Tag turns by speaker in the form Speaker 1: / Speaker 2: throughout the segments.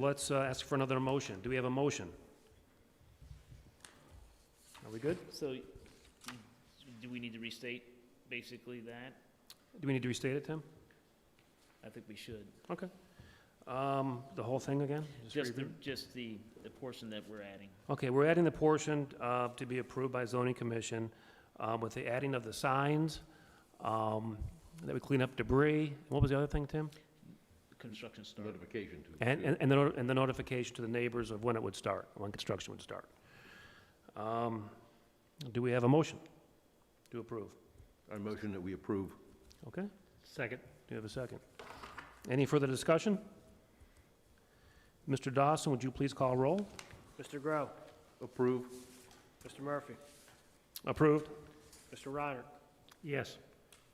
Speaker 1: Let's uh, ask for another motion. Do we have a motion? Are we good?
Speaker 2: So, do we need to restate basically that?
Speaker 1: Do we need to restate it, Tim?
Speaker 2: I think we should.
Speaker 1: Okay. Um, The whole thing again? Just
Speaker 2: Just the,
Speaker 1: review?
Speaker 2: just the, the portion that we're adding.
Speaker 1: Okay, we're adding the portion uh, to be approved by zoning commission uh, with the adding of the signs, um, that would clean up debris. What was the other thing, Tim?
Speaker 2: The Construction start.
Speaker 3: Notification to.
Speaker 1: And,
Speaker 3: to-
Speaker 1: and- and the noti- and the notification to the neighbors of when it would start, when construction would start. Um, Do we have a motion to approve?
Speaker 3: I motion that we approve.
Speaker 1: Okay? Second. Do you have a second? Any further discussion? Mr. Dawson, would you please call roll?
Speaker 4: Mr. Grow,
Speaker 3: Approve.
Speaker 4: Mr. Murphy,
Speaker 1: Approved?
Speaker 4: Mr. Reiner,
Speaker 1: Yes.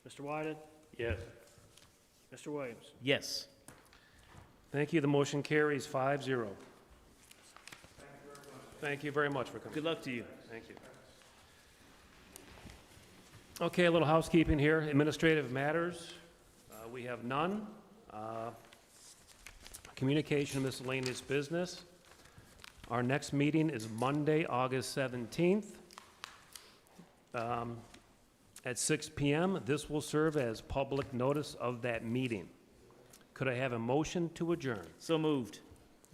Speaker 4: Mr. Wyden,
Speaker 1: Yes.
Speaker 4: Mr. Williams.
Speaker 2: Yes.
Speaker 1: Thank you. The motion carries five zero. Thank you very much for coming.
Speaker 2: Good luck to you.
Speaker 1: Thank you. Okay, a little housekeeping here. Administrative matters, uh, we have none. Uh, Communication and miscellaneous business. Our next meeting is Monday, August 17th um, at 6 PM. This will serve as public notice of that meeting. Could I have a motion to adjourn?
Speaker 2: So moved.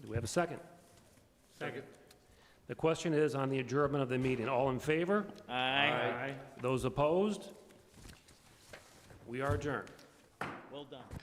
Speaker 1: Do we have a second?
Speaker 3: Second.
Speaker 1: The question is on the adjournment of the meeting. All in favor?
Speaker 2: Aye.
Speaker 1: Those opposed? We are adjourned.
Speaker 2: Well done.